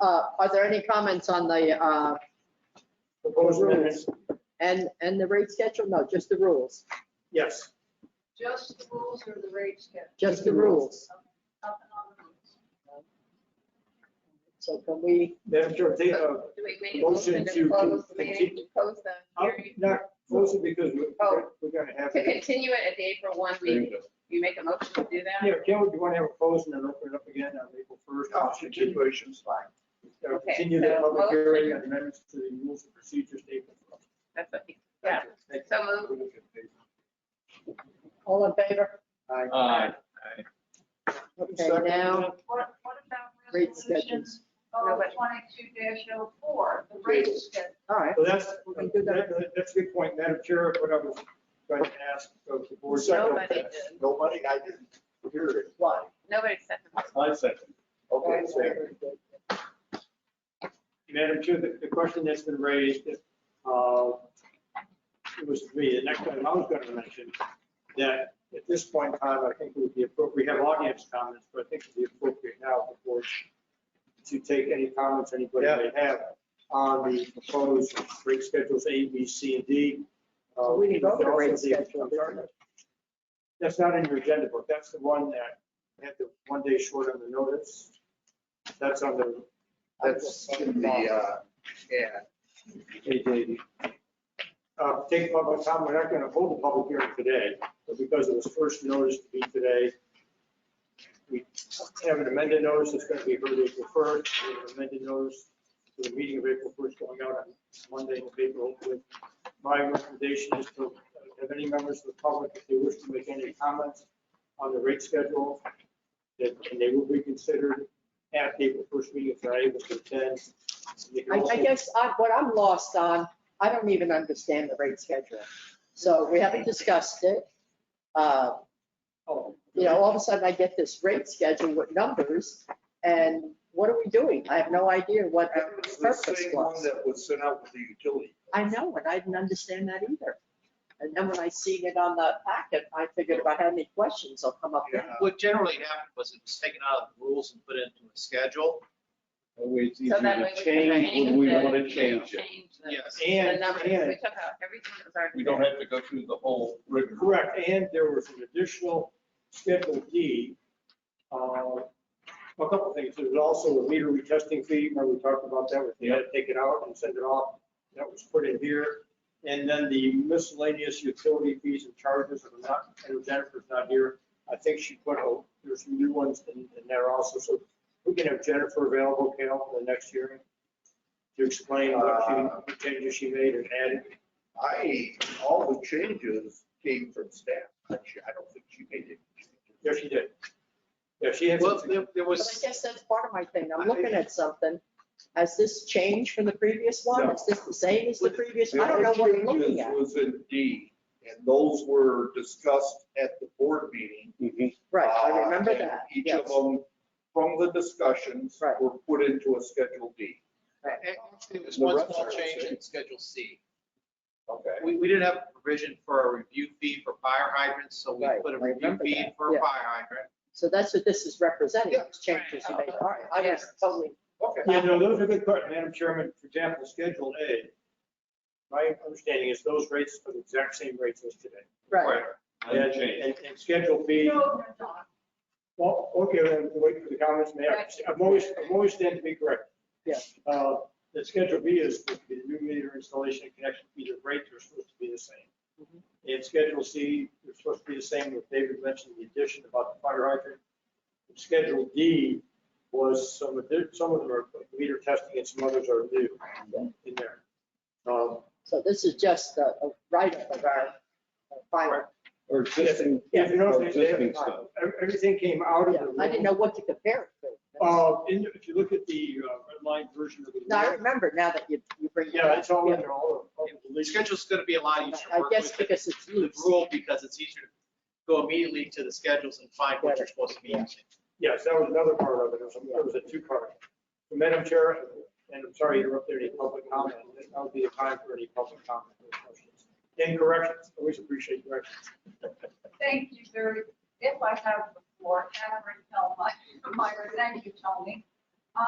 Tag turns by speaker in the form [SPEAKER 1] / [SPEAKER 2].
[SPEAKER 1] uh, are there any comments on the, uh,
[SPEAKER 2] Proposed minutes,
[SPEAKER 1] and, and the rate schedule? No, just the rules,
[SPEAKER 2] yes.
[SPEAKER 3] Just the rules or the rate schedule?
[SPEAKER 1] just the rules.
[SPEAKER 3] Nothing on the rules.
[SPEAKER 1] So can we,
[SPEAKER 2] Madam Chair, uh, take a,
[SPEAKER 4] Do we make a
[SPEAKER 2] Motion
[SPEAKER 4] motion
[SPEAKER 2] to
[SPEAKER 4] to close the meeting,
[SPEAKER 2] continue.
[SPEAKER 4] close the
[SPEAKER 2] I'm
[SPEAKER 4] hearing?
[SPEAKER 2] not, mostly because we're,
[SPEAKER 4] Oh.
[SPEAKER 2] we're gonna have.
[SPEAKER 4] To continue it at the April one meeting, you make a motion to do that?
[SPEAKER 2] Yeah, Ken, do you want to have a close and then open it up again on April first?
[SPEAKER 5] Oh, continuation's fine.
[SPEAKER 2] Uh,
[SPEAKER 4] Okay,
[SPEAKER 2] Continue the
[SPEAKER 4] so
[SPEAKER 2] public
[SPEAKER 4] motion.
[SPEAKER 2] hearing on amendments to the rules and procedures April first.
[SPEAKER 4] That's what, yeah, Um, so move.
[SPEAKER 1] all in favor?
[SPEAKER 6] Aye.
[SPEAKER 1] Okay, now,
[SPEAKER 3] What, what about oh,
[SPEAKER 1] rate
[SPEAKER 3] resolution
[SPEAKER 1] schedules.
[SPEAKER 4] No, but-
[SPEAKER 3] 22-04, the rate schedule?
[SPEAKER 1] All right,
[SPEAKER 2] So that's,
[SPEAKER 1] We can do that.
[SPEAKER 2] that- that's a good point, Madam Chair, what I was trying to ask of the board.
[SPEAKER 4] Nobody did.
[SPEAKER 5] Nobody, I didn't hear it. Why?
[SPEAKER 4] Nobody said the motion.
[SPEAKER 6] I second.
[SPEAKER 5] Okay, so-
[SPEAKER 2] Madam Chair, the, the question that's been raised, uh, it was me, the next item I was going to mention, that at this point in time, I think it would be appropriate, we have audience comments, but I think it would be appropriate now before to take any comments anybody may have on the proposed rate schedules A, B, C, and D. Uh,
[SPEAKER 1] So we need to vote on the rate
[SPEAKER 2] also the-
[SPEAKER 1] schedule, isn't it?
[SPEAKER 2] That's not in your agenda book. That's the one that had the one day short on the notice. That's on the,
[SPEAKER 5] That's in the, uh, yeah.
[SPEAKER 2] uh, take public comment, we're not going to hold a public hearing today, but because it was first noticed to be today, we have an amended notice that's going to be heard April 1st, we have an amended notice for the meeting of April 1st going out on Monday in April. With- My recommendation is to have any members of the public, if they wish to make any comments on the rate schedule, that, and they will be considered at the April 1st meeting if they're able to attend. They can
[SPEAKER 1] I, I
[SPEAKER 2] also-
[SPEAKER 1] guess I, what I'm lost on, I don't even understand the rate schedule. So we haven't discussed it. Uh,
[SPEAKER 2] Oh,
[SPEAKER 1] you know, all of a sudden I get this rate schedule with numbers and what are we doing? I have no idea what
[SPEAKER 5] That
[SPEAKER 1] the
[SPEAKER 5] was the
[SPEAKER 1] purpose
[SPEAKER 5] same one
[SPEAKER 1] was.
[SPEAKER 5] that was sent out with the utility.
[SPEAKER 1] I know, and I didn't understand that either. And then when I seen it on the packet, I figured if I had any questions, I'll come up with.
[SPEAKER 5] Yeah.
[SPEAKER 7] What generally happened was it was taken out of the rules and put into a schedule.
[SPEAKER 6] It's easy
[SPEAKER 4] So that
[SPEAKER 6] to
[SPEAKER 4] way we could
[SPEAKER 6] change when we
[SPEAKER 4] arrange
[SPEAKER 6] want
[SPEAKER 4] the-
[SPEAKER 6] to change it.
[SPEAKER 4] the-
[SPEAKER 7] Yes.
[SPEAKER 4] The
[SPEAKER 2] And,
[SPEAKER 4] numbers,
[SPEAKER 2] and
[SPEAKER 4] we took out everything that was already.
[SPEAKER 6] We don't
[SPEAKER 4] there.
[SPEAKER 6] have to go through the whole rigmarole.
[SPEAKER 2] Correct, and there was an additional Schedule D. uh, A couple of things, there was also a meter retesting fee, remember we talked about that, we had to take it out and send it off, that was put in here. And then the miscellaneous utility fees and charges that are not, and Jennifer's not here, I think she put, a- there's some new ones in in there also, so we can have Jennifer available, Cal, for the next hearing to explain what she, changes she made and added.
[SPEAKER 5] I, all the changes came from staff. Actually, I don't think she made it.
[SPEAKER 2] Yes, she did. Yeah, she had.
[SPEAKER 7] Well,
[SPEAKER 2] some-
[SPEAKER 7] there there
[SPEAKER 1] But
[SPEAKER 7] was,
[SPEAKER 1] I guess that's part of my thing. I'm looking at something. Has this changed from the previous one? Is this the same as the previous? I don't know what I'm looking at.
[SPEAKER 5] This Was in D, and those were discussed at the board meeting.
[SPEAKER 1] Right, I
[SPEAKER 5] Uh,
[SPEAKER 1] remember
[SPEAKER 5] and
[SPEAKER 1] that.
[SPEAKER 5] Each
[SPEAKER 1] Yes.
[SPEAKER 5] of them, from the discussions,
[SPEAKER 1] Right.
[SPEAKER 5] were put into a Schedule D.
[SPEAKER 7] actually, it was
[SPEAKER 5] The
[SPEAKER 7] one
[SPEAKER 5] rest
[SPEAKER 7] small
[SPEAKER 5] are the
[SPEAKER 7] change
[SPEAKER 5] same.
[SPEAKER 7] in Schedule C.
[SPEAKER 5] Okay.
[SPEAKER 7] We, we did have a provision for a review fee for fire hydrants, so we
[SPEAKER 1] Right,
[SPEAKER 7] put
[SPEAKER 1] I
[SPEAKER 7] a review
[SPEAKER 1] remember
[SPEAKER 7] fee
[SPEAKER 1] that,
[SPEAKER 7] in for a
[SPEAKER 1] yeah.
[SPEAKER 7] fire hydrant.
[SPEAKER 1] So that's what this is representing,
[SPEAKER 5] Yeah.
[SPEAKER 1] these changes you made. All right, I was totally,
[SPEAKER 5] Okay.
[SPEAKER 2] Yeah, no, those are good, que- Madam Chairman, for example, Schedule A, my understanding is those rates are the exact same rates as today.
[SPEAKER 1] right.
[SPEAKER 2] And, and and Schedule B,
[SPEAKER 3] No, they're not.
[SPEAKER 2] well, okay, then wait for the comments, Madam. I'm always, I'm always standing to be correct.
[SPEAKER 1] Yeah.
[SPEAKER 2] Uh, The Schedule B is the new meter installation and connection fee, the rates are supposed to be the same.
[SPEAKER 1] Mm-hmm.
[SPEAKER 2] And Schedule C, they're supposed to be the same, what David mentioned, the addition about the fire hydrant. Schedule D was some of, the- some of them are meter testing and some others are new in there. Um,
[SPEAKER 1] So this is just a a write-up of our uh, final.
[SPEAKER 6] Or existing,
[SPEAKER 2] Yeah, you know,
[SPEAKER 6] or
[SPEAKER 2] they- they-
[SPEAKER 6] existing stuff.
[SPEAKER 2] ev- everything came out of
[SPEAKER 1] Yeah,
[SPEAKER 2] the.
[SPEAKER 1] I didn't know what to compare it to.
[SPEAKER 2] Uh, in- if you look at the uh, red line version of the.
[SPEAKER 1] Now, I remember now that you, you bring it
[SPEAKER 2] Yeah,
[SPEAKER 1] up.
[SPEAKER 2] it's all in there, all of- all of
[SPEAKER 7] The
[SPEAKER 2] the.
[SPEAKER 7] schedule's going to be a lot easier to
[SPEAKER 1] I
[SPEAKER 7] work
[SPEAKER 1] guess
[SPEAKER 7] with
[SPEAKER 1] because it's
[SPEAKER 7] the
[SPEAKER 1] used.
[SPEAKER 7] rule because it's easier to go immediately to the schedules and find what you're supposed to be using.
[SPEAKER 2] Yes, that was another part of it. It was, it was a two-part. Madam Chair, and I'm sorry to interrupt any public comment. That would be the time for any public comment or questions. And corrections, always appreciate corrections.
[SPEAKER 3] Thank you very, if I have the floor, Catherine Thelma, Meyer, thank you, Tony.